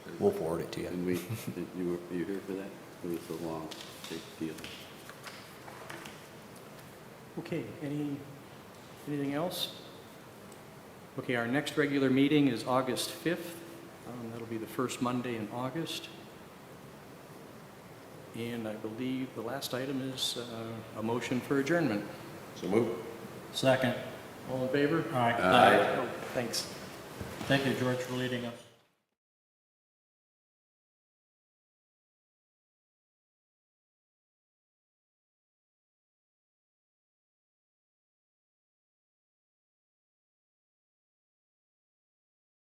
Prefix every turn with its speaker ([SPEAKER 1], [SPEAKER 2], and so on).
[SPEAKER 1] we'll forward it to you.
[SPEAKER 2] And we, did you were, you here for that? It was a long, big deal.
[SPEAKER 3] Okay, any, anything else? Okay, our next regular meeting is August 5th. Um, That'll be the first Monday in August. And I believe the last item is uh, a motion for adjournment.
[SPEAKER 2] So move.
[SPEAKER 4] Second.
[SPEAKER 3] All in favor?
[SPEAKER 4] All right.
[SPEAKER 2] Aye.
[SPEAKER 3] Oh, Thanks.
[SPEAKER 4] Thank you, George, for leading us.